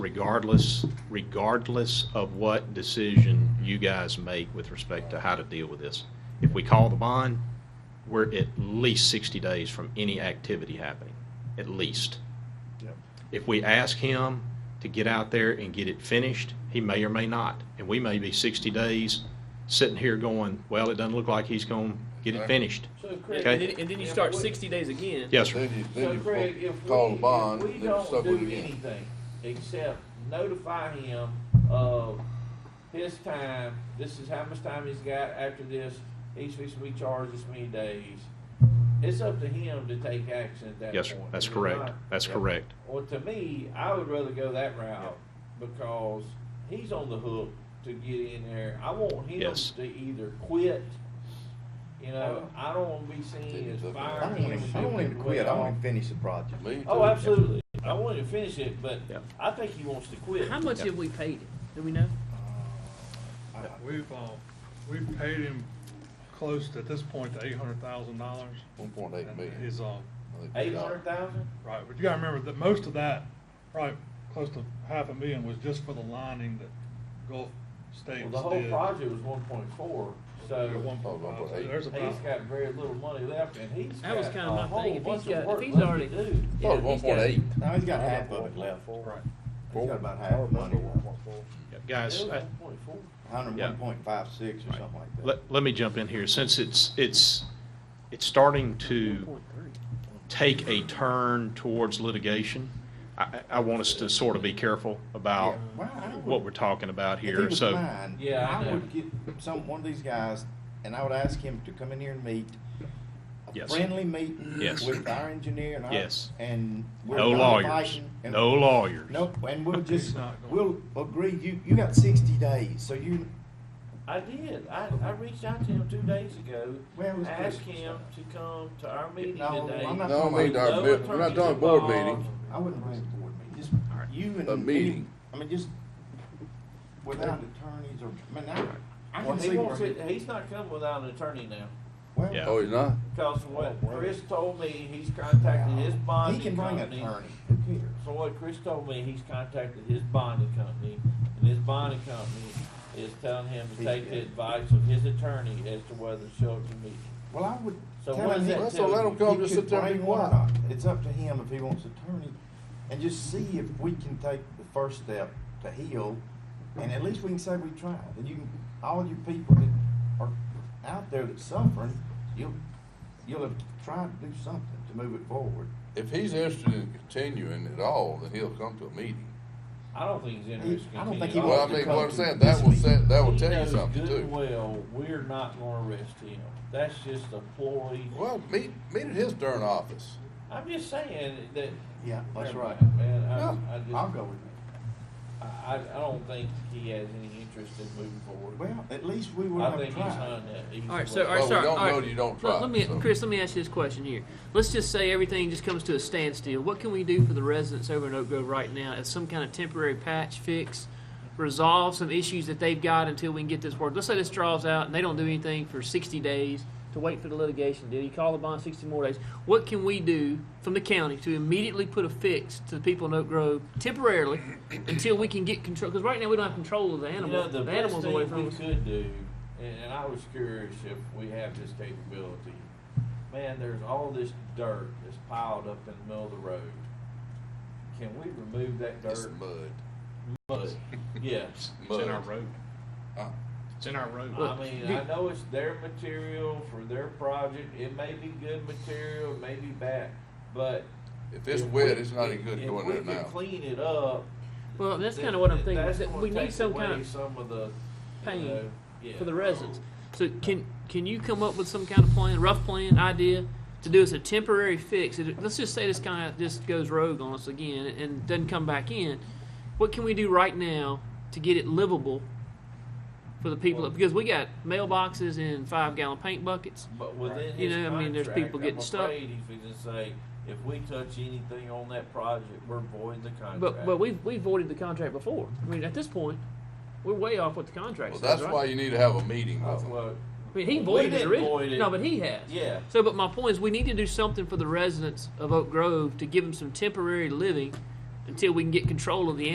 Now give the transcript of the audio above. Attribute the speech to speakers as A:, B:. A: regardless, regardless of what decision you guys make with respect to how to deal with this. If we call the bond, we're at least 60 days from any activity happening, at least.
B: Yep.
A: If we ask him to get out there and get it finished, he may or may not. And we may be 60 days sitting here going, well, it doesn't look like he's going to get it
B: Exactly.
A: finished.
C: So Craig,
A: Okay.
D: And then, and then you start sixty days again.
A: Yes, sir.
B: Then you,
C: so
B: then
C: Craig,
B: you
C: if we,
B: call the bond,
C: if
B: then
C: we
B: you're
C: don't
B: stuck with it
C: do
B: again.
C: anything except notify him of his time, this is how much time he's got after this, he's fixing, we charge this many days. It's up to him to take action at that point.
A: Yes, sir. That's
C: We're
A: correct.
C: not-
A: That's correct.
C: Well, to me, I would rather go that route because he's on the hook to get in there. I want him
A: Yes.
C: to either quit. You know, I don't want to be seen as
B: I
E: I
C: firing
E: don't want
C: him.
E: him, I don't want him to quit, I want him to finish the project.
B: Me
C: Oh,
B: too.
C: absolutely. I want him to finish it, but
A: Yeah.
C: I think he wants to quit.
D: How much have we paid it? Do we know?
F: We've, uh, we've paid him close to, at this point, to eight hundred thousand dollars.
B: One point eight million.
F: Is, uh,
B: I think
C: Eight
B: we got Oh,
C: hundred
B: it.
C: thousand?
F: right, but you gotta remember that most of that, probably close to half a million was just for the lining that Gulf States
C: Well, the
F: did.
C: whole project was one point four,
F: At
C: so
F: one point five, so there's
C: he's
F: about,
C: got very little money left, and he's
D: That was
C: got
D: kinda my
C: a whole
D: thing. If he's
C: bunch
D: got-
C: of
D: if
C: work
D: he's
C: left
D: already-
C: to do.
B: Oh,
D: Yeah,
B: one
D: he's got-
B: point eight.
E: Now, he's got half of it left.
F: right,
E: He's got about half the money left,
A: Yeah, Guys, I-
C: One point four.
E: hundred one point five six or something like that.
A: Let, let me jump in here, since it's, it's, it's starting to take a turn towards litigation. I, I- I want us to sort of be careful about
E: Yeah, well, I would-
A: what we're talking about
E: If he
A: here,
E: was
A: so.
E: mine,
C: Yeah, I
E: I
C: know.
E: would get some, one of these guys, and I would ask him to come in here and meet. A
A: Yes.
E: friendly meeting
A: Yes.
E: with our engineer and our.
A: Yes.
E: And. we're
A: No
E: not
A: lawyers,
E: fighting and-
A: no lawyers.
E: Nope, and we'll
F: He's
E: just,
F: not
E: we'll
F: going.
E: agree, you, you got sixty days, so you,
C: I did. I, I reached out to him two days ago.
E: Well, it was
C: asked
E: Christmas
C: him
E: time.
C: to come to our meeting
E: No,
C: today.
E: I'm not
B: No,
E: talking
B: I mean,
E: about-
B: our,
C: No
B: bid- we're not
C: attorneys
B: talking board
C: involved.
B: meeting.
E: I wouldn't bring a board meeting, just you and.
B: A
E: any-
B: meeting.
E: I mean, just without attorneys or, I mean, I, I
C: Well,
E: can
C: he
E: see
C: wants
E: where.
C: it, he's not coming without an attorney now.
E: well,
A: Yeah.
B: Oh, he's not?
C: Because from what
E: Oh, well.
C: Chris told me, he's contacted his
E: He
C: bonding
E: can bring an
C: company.
E: attorney, who cares?
C: From what Chris told me, he's contacted his bonding company, and his bonding company is telling him to
E: He's
C: take the
E: good.
C: advice of his attorney as to whether Shelton meet.
E: Well, I would.
C: So
E: tell
C: what
E: him
C: does
E: he-
C: that So let tell him you?
B: come,
E: he
B: just
E: could
B: sit there and be
E: bring one or
B: quiet.
E: not. It's up to him if he wants attorney, and just see if we can take the first step to heal, and at least we can say we tried. And you, can all you people that are out there that's suffering, you'll, you'll have tried to do something to move it forward.
B: If he's interested in continuing at all, then he'll come to a meeting.
C: I don't think he's interested. in
E: I don't think he
C: continuing.
B: Well, I
E: wants to
B: mean,
E: come
B: what I'm
E: to
B: saying,
E: this
B: that will say,
E: meeting.
B: that will
C: He
B: tell you
C: knows
B: something
C: good
B: too.
C: and Well, we're not gonna arrest him. That's just a ploy.
B: Well, meet, meet at his darn office.
C: I'm just saying that.
E: Yeah, that's
C: Never
E: right.
C: mind, Man,
B: No,
C: I, I just,
E: I'll
C: I,
E: go with that.
C: I I don't think he has any interest in moving forward.
E: Well, at least we would
C: I
E: have
C: think he's
E: tried.
C: on that. either
D: All right,
C: way.
D: so all
B: Well,
D: right,
B: we
D: so
B: don't
D: all right.
B: know till you don't
D: Look,
B: try,
D: Let me,
B: so.
D: Chris, let me ask you this question here. Let's just say everything just comes to a standstill. What can we do for the residents over in Oak Grove right now as some kind of temporary patch fix, resolve some issues that they've got until we can get this worked? Let's say this draws out and they don't do anything for 60 days to wait for the litigation. Did he call the bond 60 more days? What can we do from the county to immediately put a fix to the people in Oak Grove temporarily until we can get control? Because right now we don't have control of the
C: You know,
D: animal.
C: the
D: the
C: best
D: animals away
C: thing
D: from
C: we
D: us.
C: could do, and, and I was curious if we have this capability. Man, there's all this dirt that's piled up in the middle of the road. Can we remove that
B: It's
C: dirt?
B: mud.
C: Mud. Yes.
A: It's in our road.
B: Uh,
A: It's in our road.
C: I mean, I know it's their material for their project. It may be good material, it may be bad, but.
B: If it's
C: if
B: wet,
C: we-
B: it's not any
C: if-
B: good
C: if
B: going
C: we
B: there
C: can
B: now.
C: Clean it up.
D: Well, that's
C: then-
D: kind of what I'm
C: then
D: thinking.
C: that's
D: that
C: gonna
D: we need
C: take
D: some
C: away
D: kind of
C: Some of the. you
D: pain
C: know, yeah.
D: for the residents. So can can you come up with some kind of plan, rough plan, idea to do as a temporary fix? It- Let's just say this guy just goes rogue on us again and, and doesn't come back in. What can we do right now to get it livable for the people? because we got mailboxes and five gallon paint buckets.
C: But within
D: You
C: his
D: know, I mean, there's
C: contract,
D: people
C: I'm
D: getting stuck.
C: afraid He's gonna say, if we touch anything on that project, we're voiding the contract.
D: But but we've we voided the contract before. I mean, at this point, we're way off what the contract
B: Well,
D: says,
B: that's
D: right?
B: why you need to have a meeting
C: Uh,
B: with him.
C: well,
D: I mean, he
C: We
D: voided it
C: didn't
D: originally.
C: void it.
D: No, but he has.
C: Yeah.
D: So, but my point is, we need to do something for the residents of Oak Grove to give them some temporary living until we can get control of the